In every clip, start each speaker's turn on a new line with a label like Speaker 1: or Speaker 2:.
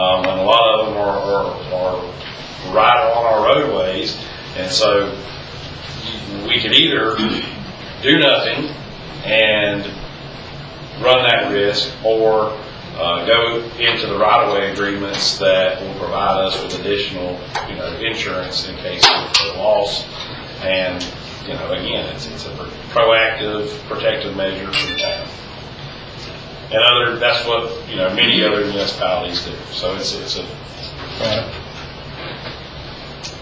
Speaker 1: Um, right along our roadways. And so we could either do nothing and run that risk or uh, go into the right-of-way agreements that will provide us with additional, you know, insurance in case of loss. And, you know, again, it's, it's a proactive, protective measure for the town. And other, that's what, you know, many other municipalities do. So it's, it's a,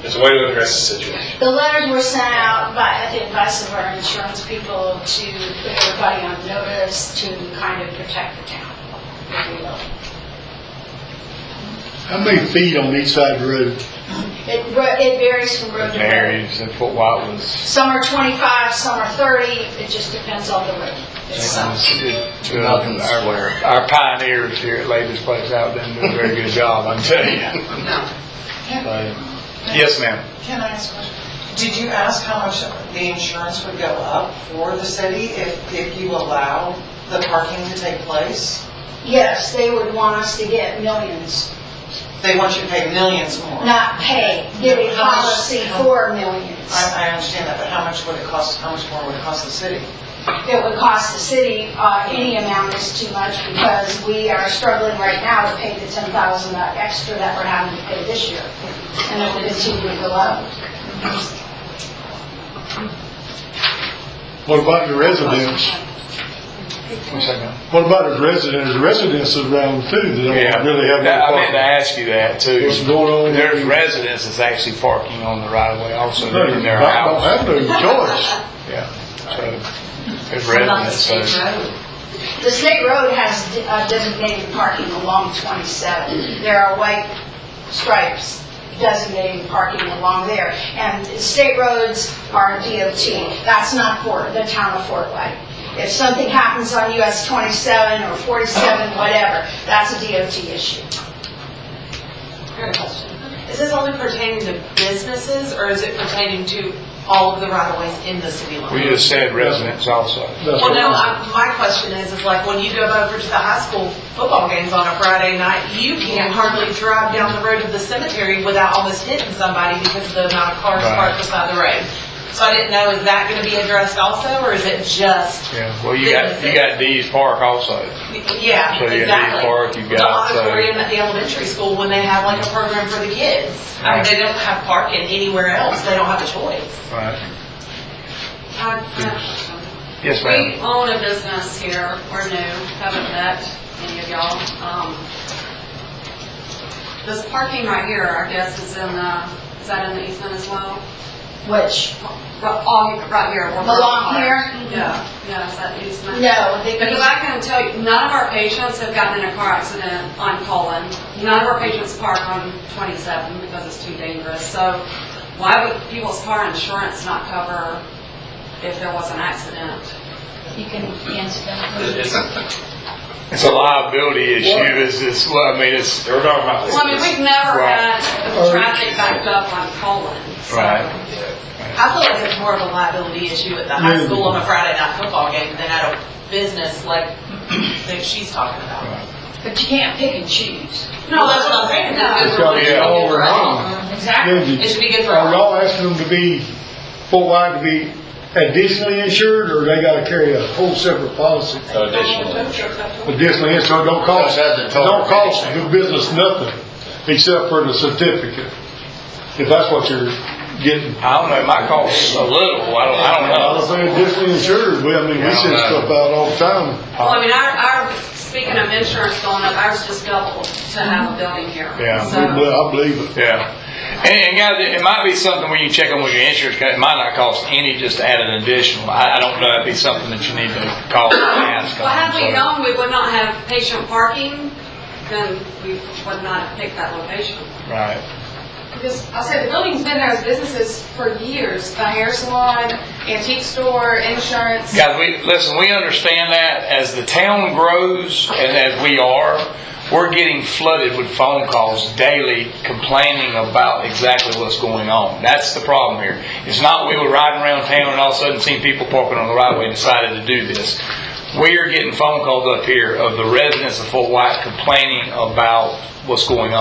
Speaker 1: it's a way to address the situation.
Speaker 2: The letters were sent out by, at the advice of our insurance people to put everybody on notice to kind of protect the town. if you will.
Speaker 3: How many feet on each side of the road?
Speaker 2: It, ro- it varies from road to road.
Speaker 4: Marys, that's what White was.
Speaker 2: Some are 25, some are 30, it just depends on the road. It's some-
Speaker 4: Our our pioneers here at Lady's Place out there doing a very good job, I'm telling you. Yes, ma'am.
Speaker 5: Can I ask a question? Did you ask how much the insurance would go up for the city if, if you allow the parking to take place?
Speaker 2: Yes, they would want us to get millions,
Speaker 5: They want you to pay millions more. I,
Speaker 2: not pay, get a
Speaker 5: How much-
Speaker 2: policy for millions.
Speaker 5: I understand that, but how much would it cost, how much more would it cost the city?
Speaker 2: It would cost the city, uh, any amount is too much because we are struggling right now to pay the 10,000 that extra that we're having to pay this year. And it will continue to go up.
Speaker 3: What about the residents?
Speaker 4: One second.
Speaker 3: What about the residents? The residents around too, that
Speaker 4: Yeah,
Speaker 3: don't really have
Speaker 4: That- I meant to
Speaker 3: no
Speaker 4: ask you that too.
Speaker 3: What's going on?
Speaker 4: There's residents that's actually parking on the right of way also,
Speaker 3: parking. They
Speaker 4: they're
Speaker 3: don't
Speaker 4: in their house.
Speaker 3: have no choice.
Speaker 4: Yeah, so, there's residents, so.
Speaker 2: The state road has de- uh, designated parking along 27. There are white stripes designating parking along there. And state roads are DOT. That's not for the town of Fort White. If something happens on US 27 or 47, whatever, that's a DOT issue.
Speaker 6: Is this only pertaining to businesses, or is it pertaining to all of the right-of-ways in the city limits?
Speaker 4: We just said residents also.
Speaker 3: That's
Speaker 6: Well,
Speaker 3: what-
Speaker 6: no, I- my question is, is like, when you go over to the high school football games on a Friday night, you can hardly drive down the road to the cemetery without almost hitting somebody because of the amount of cars
Speaker 4: Right.
Speaker 6: parked beside the road. So I didn't know, is that gonna be addressed also, or is it just?
Speaker 4: Yeah, well, you got, you got Dee's Park also.
Speaker 6: Yeah,
Speaker 4: So you got Dee's
Speaker 6: exactly.
Speaker 4: Park, you
Speaker 6: The
Speaker 4: got, so,
Speaker 6: auditorium at the elementary school, when they have like a program for the kids, I mean, they don't have parking anywhere else, they don't have a choice.
Speaker 4: right.
Speaker 7: I have
Speaker 4: Yes,
Speaker 7: a question.
Speaker 4: ma'am.
Speaker 7: We own a business here, we're new, haven't met any of y'all. Um, This parking right here, I guess, is in the, is that in the easement as well?
Speaker 2: Which,
Speaker 7: Right, all, right here. where we're-
Speaker 2: Along here?
Speaker 7: Yeah, yeah, is that easement?
Speaker 2: no, they
Speaker 7: Because I can tell you, none of our patients have gotten in a car accident on Cullen. None of our patients park on 27 because it's too dangerous. So why would people's car insurance not cover if there was an accident?
Speaker 8: You can answer that.
Speaker 1: It's, it's-
Speaker 4: It's a liability issue, it's, it's, well, I mean, it's,
Speaker 1: they were talking about this.
Speaker 7: Well, I mean, we've never
Speaker 4: Right.
Speaker 7: had a traffic backed up on Cullen. so-
Speaker 4: right,
Speaker 6: I feel like it's more of a liability issue at the high school on a Friday night football game than at a business like that she's talking about.
Speaker 2: but you can't pick and choose.
Speaker 6: No, that's what I'm saying.
Speaker 7: No.
Speaker 3: It's gotta be all over home.
Speaker 2: Exactly.
Speaker 6: Uh-huh. It should be good for
Speaker 3: Are
Speaker 6: all.
Speaker 3: y'all asking them to be, Fort White to be additionally insured, or they gotta carry a whole separate policy?
Speaker 1: So Additionally,
Speaker 3: Additionally insured, don't cost,
Speaker 4: So it doesn't total
Speaker 3: don't cost the business nothing, except for the certificate, if that's what you're getting.
Speaker 4: I don't know, it might cost a little, I don't, I don't
Speaker 3: I
Speaker 4: know.
Speaker 3: was saying additionally insured, we, I mean, we send stuff out all the time.
Speaker 7: Well, I mean, our, our, speaking of insurance going up, ours just doubled to have a
Speaker 9: Mm-hmm.
Speaker 7: building here.
Speaker 4: Yeah.
Speaker 7: So-
Speaker 3: I believe it.
Speaker 4: Yeah. And, and guys, it might be something where you check on with your insurance, 'cause it might not cost any just to add an additional. I, I don't know, it'd be something that you need to call and ask. on,
Speaker 7: Well, had we
Speaker 4: so.
Speaker 7: known we would not have patient parking, then we would not have picked that location.
Speaker 4: Right,
Speaker 9: Because I'll say the building's been there as businesses for years, the hair salon, antique store, insurance.
Speaker 4: guys, we, listen, we understand that as the town grows and as we are, we're getting flooded with phone calls daily complaining about exactly what's going on. That's the problem here. It's not we were riding around town and all of a sudden seen people parking on the right way and decided to do this. We are getting phone calls up here of the residents of Fort White complaining about what's going on.